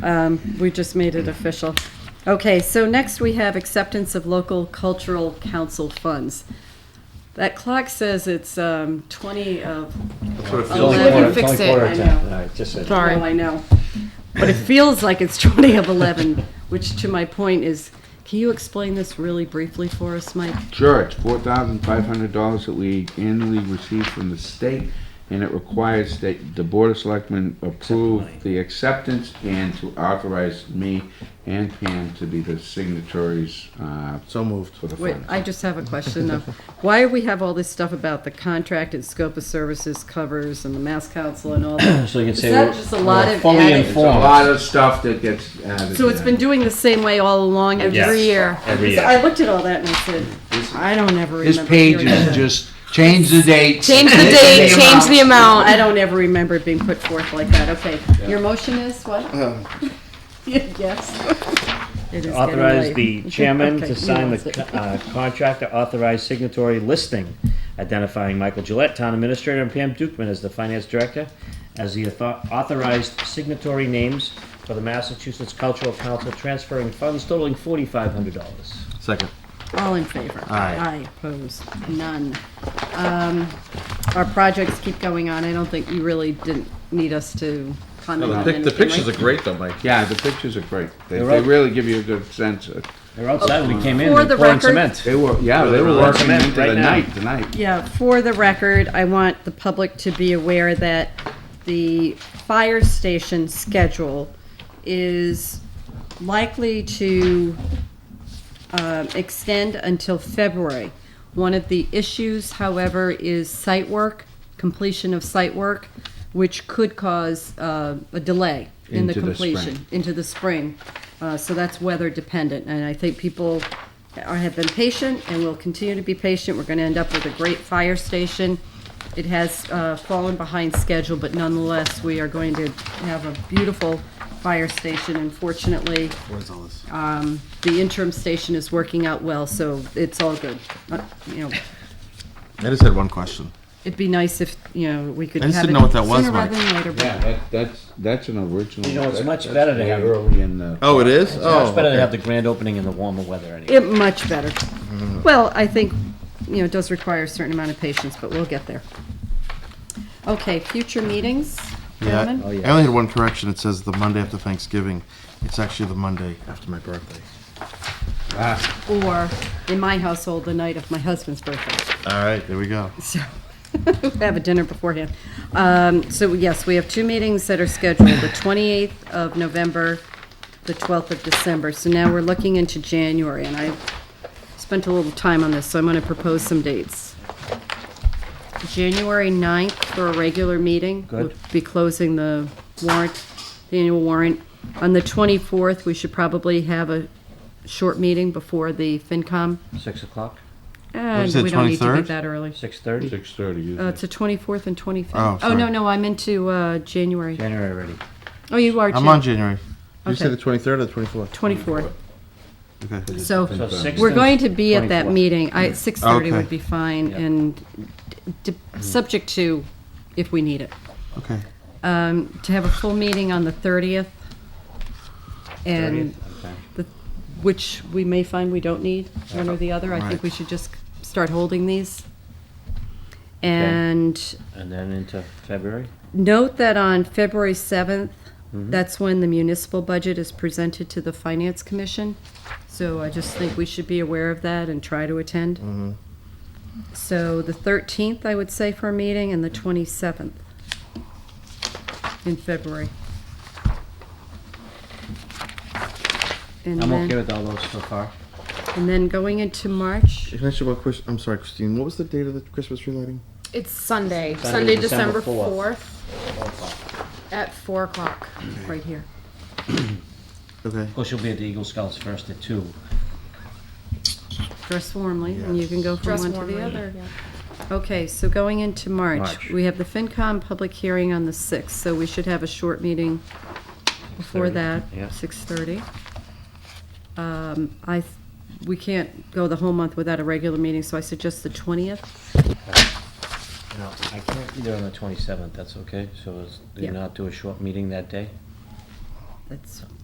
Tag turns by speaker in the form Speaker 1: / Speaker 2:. Speaker 1: Um, We just made it official. Okay, so next we have acceptance of local cultural council funds. That clock says it's um, 20 of,
Speaker 2: Sort of
Speaker 1: Eleven.
Speaker 3: Oh,
Speaker 2: feels
Speaker 1: Eleven.
Speaker 2: like
Speaker 1: You
Speaker 2: one.
Speaker 1: fix
Speaker 3: It's only
Speaker 1: it.
Speaker 3: quarter
Speaker 1: I
Speaker 3: to ten.
Speaker 1: know.
Speaker 3: All right, just a-
Speaker 4: Sorry.
Speaker 1: well, I know. But it feels like it's 20 of 11, which to my point is, can you explain this really briefly for us, Mike?
Speaker 2: Sure, it's four thousand five hundred dollars that we annually receive from the state, and it requires that the Board of Selectmen approve the acceptance and to authorize me and Pam to be the signatories, uh. So moved. For the
Speaker 1: Wait,
Speaker 2: funds.
Speaker 1: I just have a question though. Why do we have all this stuff about the contract and scope of services covers and the Mass Council and all that?
Speaker 3: So you can
Speaker 1: Is
Speaker 3: say
Speaker 1: that
Speaker 3: we're
Speaker 1: just a lot
Speaker 3: we're
Speaker 1: of
Speaker 3: fully
Speaker 1: added-
Speaker 2: It's a lot
Speaker 3: informed.
Speaker 2: of stuff that gets added.
Speaker 1: So it's been doing the same way all along every
Speaker 3: Yes.
Speaker 1: year.
Speaker 3: Every
Speaker 1: So
Speaker 3: year.
Speaker 1: I looked at all that and I said, I don't ever remember.
Speaker 2: This page
Speaker 1: hearing that.
Speaker 2: is just, change the date.
Speaker 4: Change the date, change the amount.
Speaker 1: I don't ever remember it being put forth like that. Okay, your motion is what?
Speaker 2: Uh-huh.
Speaker 1: Yes. It is
Speaker 3: Authorize
Speaker 1: getting
Speaker 3: the
Speaker 1: late.
Speaker 3: chairman
Speaker 1: Okay,
Speaker 3: to
Speaker 1: who
Speaker 3: sign
Speaker 1: wants
Speaker 3: the
Speaker 1: it?
Speaker 3: co- uh, contract to authorize signatory listing identifying Michael Gillette, town administrator, and Pam Dukeman as the finance director as the author- authorized signatory names for the Massachusetts Cultural Council transferring funds totaling forty-five hundred dollars.
Speaker 5: Second.
Speaker 1: All in favor?
Speaker 5: Aye.
Speaker 1: Aye, opposed, none. Um, Our projects keep going on. I don't think you really didn't need us to comment on
Speaker 5: The,
Speaker 1: anything.
Speaker 5: pic- the pictures are
Speaker 1: right?
Speaker 5: great though, Mike.
Speaker 2: Yeah, the pictures are great. They,
Speaker 3: They're
Speaker 2: they
Speaker 3: up.
Speaker 2: really give you a good sense of,
Speaker 3: They're outside when we came in,
Speaker 1: For
Speaker 3: they're
Speaker 1: the
Speaker 3: pouring
Speaker 1: record-
Speaker 3: cement.
Speaker 2: they were, yeah, they were
Speaker 3: They're
Speaker 2: working
Speaker 3: cement
Speaker 2: into
Speaker 3: right
Speaker 2: the
Speaker 3: now.
Speaker 2: night, tonight.
Speaker 1: Yeah, for the record, I want the public to be aware that the fire station schedule is likely to um, extend until February. One of the issues, however, is site work, completion of site work, which could cause uh, a delay in the
Speaker 2: Into the spring.
Speaker 1: completion into the spring. Uh, so that's weather dependent. And I think people are, have been patient and will continue to be patient. We're going to end up with a great fire station. It has uh, fallen behind schedule, but nonetheless, we are going to have a beautiful fire station. Unfortunately, um, the interim station is working out well, so it's all good. Uh, You know,
Speaker 5: I just had one question.
Speaker 1: it'd be nice if, you know, we could
Speaker 5: I just
Speaker 1: have
Speaker 5: didn't know
Speaker 1: it
Speaker 5: what that was,
Speaker 1: sooner rather
Speaker 5: Mike.
Speaker 1: than later. but-
Speaker 2: Yeah, that, that's, that's an original.
Speaker 3: You know, it's
Speaker 2: that-
Speaker 3: much
Speaker 2: that's
Speaker 3: better to
Speaker 2: way
Speaker 3: have-
Speaker 2: Early in the.
Speaker 5: Oh, it is? Oh.
Speaker 3: Much better to
Speaker 5: okay.
Speaker 3: have the grand opening in the warmer weather anyway.
Speaker 1: It, much better. Well, I think, you know, it does require a certain amount of patience, but we'll get there. Okay, future meetings,
Speaker 6: Yeah,
Speaker 1: gentlemen?
Speaker 3: Oh,
Speaker 6: I
Speaker 3: yeah.
Speaker 6: I only had one correction. It says the Monday after Thanksgiving. It's actually the Monday after my birthday.
Speaker 1: Or, in my household, the night of my husband's birthday.
Speaker 6: All right, there we go.
Speaker 1: So, have a dinner beforehand. Um, So yes, we have two meetings that are scheduled, the 28th of November, the 12th of December. So now we're looking into January, and I spent a little time on this, so I'm going to propose some dates. January 9th for a regular meeting. We'll
Speaker 3: Good.
Speaker 1: Be closing the warrant, the annual warrant. On the 24th, we should probably have a short meeting before the FinCom.
Speaker 3: Six o'clock,
Speaker 1: And
Speaker 6: it,
Speaker 1: we don't need to be
Speaker 6: 23rd?
Speaker 1: that early.
Speaker 3: six thirty,
Speaker 2: Six thirty,
Speaker 1: Uh, It's the 24th and 25th.
Speaker 6: Oh,
Speaker 1: no,
Speaker 6: sorry.
Speaker 1: no, I'm into uh, January.
Speaker 3: January already.
Speaker 1: Oh, you are too.
Speaker 6: I'm on January.
Speaker 5: Did you say
Speaker 1: Okay.
Speaker 5: the 23rd or the 24th?
Speaker 1: 24th.
Speaker 6: Okay.
Speaker 1: So
Speaker 3: six-
Speaker 1: we're going to be at that
Speaker 3: 24th.
Speaker 1: meeting. I, 6:30
Speaker 6: Okay. Mm-hmm.
Speaker 1: would be fine and d- d- subject to if we need it.
Speaker 6: Okay.
Speaker 1: Um, To have a full meeting on the 30th and,
Speaker 3: 30th, okay.
Speaker 1: the- which we may find we don't need, one or the other. I think
Speaker 6: Right.
Speaker 1: we should just start holding these. And
Speaker 3: And then into February?
Speaker 1: Note that on February 7th, that's when the municipal budget is presented to the Finance Commission. So I just think we should be aware of that and try to attend. So the 13th, I would say, for a meeting, and the 27th in February. And
Speaker 3: I'm okay
Speaker 1: then,
Speaker 3: with all those so far.
Speaker 1: and then going into March,
Speaker 6: Can I ask you about Chris? I'm sorry, Christine. What was the date of the Christmas tree lighting?
Speaker 4: It's Sunday, Sunday,
Speaker 3: December
Speaker 4: December
Speaker 3: 4th.
Speaker 4: 4th at 4 o'clock.
Speaker 1: right here.
Speaker 6: Okay.
Speaker 3: Of course, you'll be at the Eagle Scouts first at two.
Speaker 1: Dress warmly, and you can go from
Speaker 4: Dress
Speaker 1: one to
Speaker 4: warmly.
Speaker 1: the other.
Speaker 4: Yeah.
Speaker 1: Okay, so going into March,
Speaker 3: March.
Speaker 1: we have the FinCom public hearing on the 6th, so we should have a short meeting before
Speaker 3: 6:30,
Speaker 1: that,
Speaker 3: yeah.
Speaker 1: 6:30. Um, I, th- we can't go the whole month without a regular meeting, so I suggest the 20th.
Speaker 3: No, I can't be there on the twenty-seventh, that's okay? So is, do
Speaker 1: Yeah.
Speaker 3: you not do a short meeting that day?
Speaker 1: that's